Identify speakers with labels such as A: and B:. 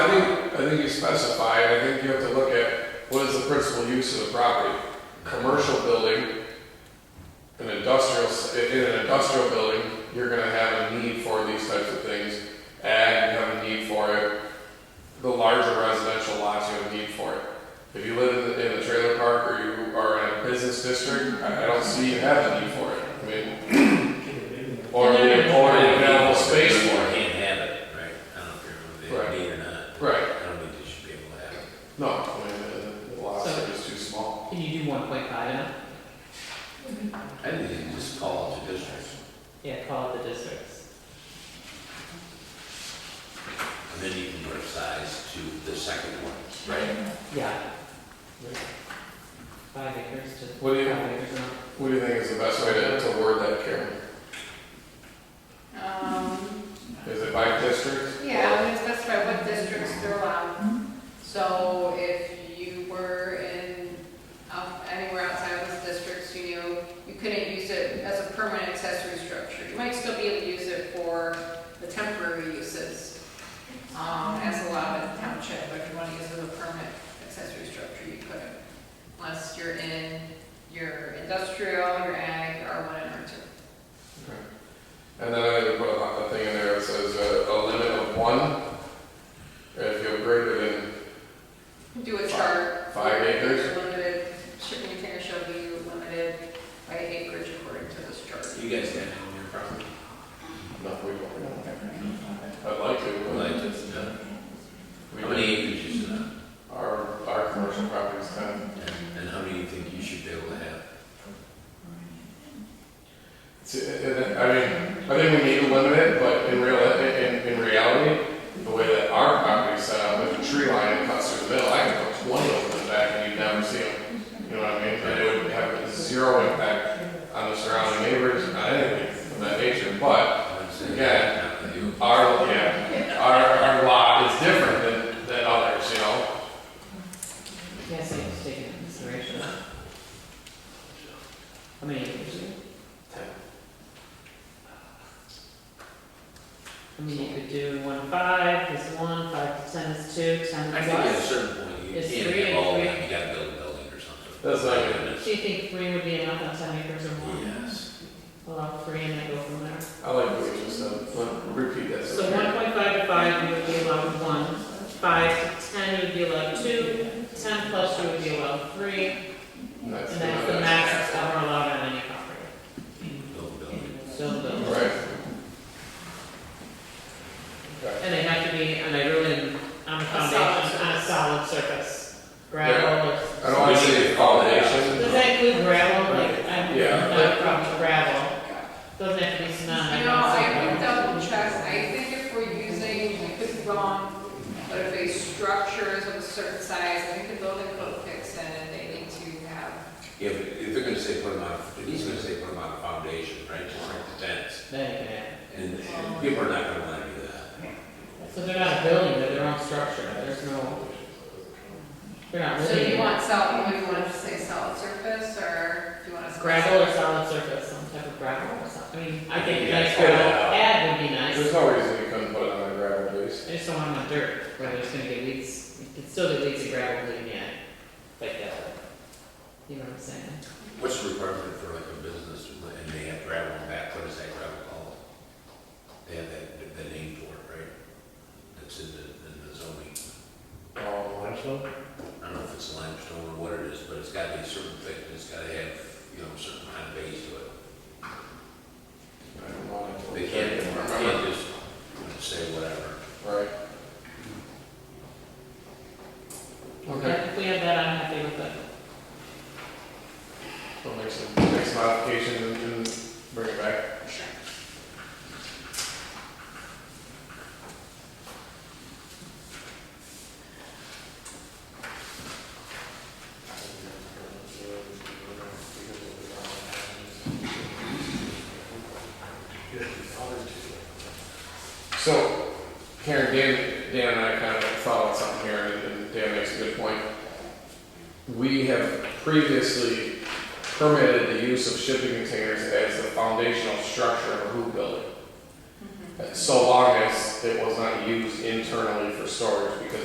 A: think you specify, and I think you have to look at what is the principal use of the property. Commercial building, an industrial, s- in in an industrial building, you're gonna have a need for these types of things. Ag, you have a need for it. The larger residential lots, you have a need for it. If you live in the, in the trailer park or you are in a business district, I, I don't see you have a need for it. I mean, or, or available space for it.
B: Can't have it, right? I don't care if
A: Right.
B: they need or not.
A: Right.
B: I don't think they should be able to have it.
A: No, I mean, uh, the- the lots are just too small.
C: Can you do one point five now?
B: I think they just call it the district.
C: Yeah, call it the districts.
B: And then you can put a size to the second one.
A: Right.
C: Yeah. Five acres to.
A: What do you-
C: Five acres now.
A: What do you think is the best way to, to word that, Karen?
D: Um,
A: Is it by district?
D: yeah, I'm gonna specify what districts they're allowed. So if you were in, um, anywhere outside of those districts, you knew, you couldn't use it as a permanent accessory structure. You might still be able to use it for the temporary uses, um, as allowed in the township, but if you wanna use it as a permanent accessory structure, you couldn't. Unless you're in your industrial, your ag, R one and R two.
A: Okay. And then I think we put a, a thing in there that says uh, a limit of one. If you're greater than,
D: Do a chart.
A: Five acres?
D: Limited, shipping container shall be limited by acreage according to this chart.
B: You guys got it on your property?
A: no, we don't. I'd like to,
B: Like,
A: but
B: it's, uh,
A: we
B: how many
A: don't.
B: acres is enough?
A: Our, our commercial property's ten.
B: And and how many you think you should be able to have?
A: It's- it- it- I mean, I think we need to limit it, but in real, in, in reality, the way that our property's set up, with a tree line that cuts through the middle, I can put twenty of them in the back and you'd never see them. You know what I mean? And it would have zero impact on the surrounding neighbors, on anything of that nature, but
B: I'd say
A: Yeah.
B: not with you.
A: Our, yeah, our, our lot is different than, than others, you know?
C: Yes, I was taking into consideration. How many acres? I mean, you could do one five, is one, five percent is two, ten
B: I
C: is
B: think at a
C: less.
B: certain point, you
C: It's
B: can't
C: three
B: have all of
C: and
B: them, you gotta build a building or something.
A: That's not good.
C: Do you think three would be enough on ten acres or more?
B: Oh, Yes.
C: Allow three and then go from there.
A: I like what you just said, Let- repeat that.
C: So one point five to five, you would be allowed one, five to ten, you would be allowed two, ten plus, you would be allowed three,
A: That's-
C: and that's the max that's ever allowed on any property.
B: Build a building.
C: So the-
A: Right. Okay.
C: And they have to be, and I really, on a foundation, on a solid surface, gravel or.
A: I don't wanna say
C: Does
A: foundation.
C: that include gravel, like, I'm
A: Yeah.
C: not from gravel, doesn't have to be cement.
D: You know, I would double check, I think if we're using, I could be wrong, but if a structure is of a certain size, I think the building code kicks in and they need to have,
B: If, if they're gonna say put them on, if he's gonna say put them on a foundation, right, just like the tents,
C: Then you can add.
B: and and people are not gonna wanna do that.
C: So they're not building, they're their own structure, there's no, they're not
D: so
C: living
D: you
C: in it.
D: want solid, what do you want to say, solid surface, or do you want us to?
C: Gravel or solid surface, some type of gravel or something, I mean, I think
B: Yeah,
C: nice
B: it's good.
C: gravel, add would be nice.
A: There's no reason you couldn't put it on a gravel base.
C: I just don't want no dirt, where there's gonna get leaks, you can still get leaks of gravel, leaving yet, like that. You know what I'm saying?
B: What's the requirement for like a business, and they have gravel on back, what is that gravel called? They have that, the name for it, right? That's in the, in the zoning,
A: Um,
B: I don't know if it's limestone or what it is, but it's gotta be a certain thickness, it's gotta have, you know, a certain kind of base to it.
A: I don't know.
B: They can't, they can't just say whatever.
A: Right. Okay,
C: If we have that, I'm happy with it.
A: we'll make some, make some modifications and and bring it back. So, Karen, Dan, Dan and I kind of thought on something here, and- and Dan makes a good point. We have previously permitted the use of shipping containers as the foundational structure of a hoop
D: Mm-hmm.
A: building, so long as it was not used internally for storage, because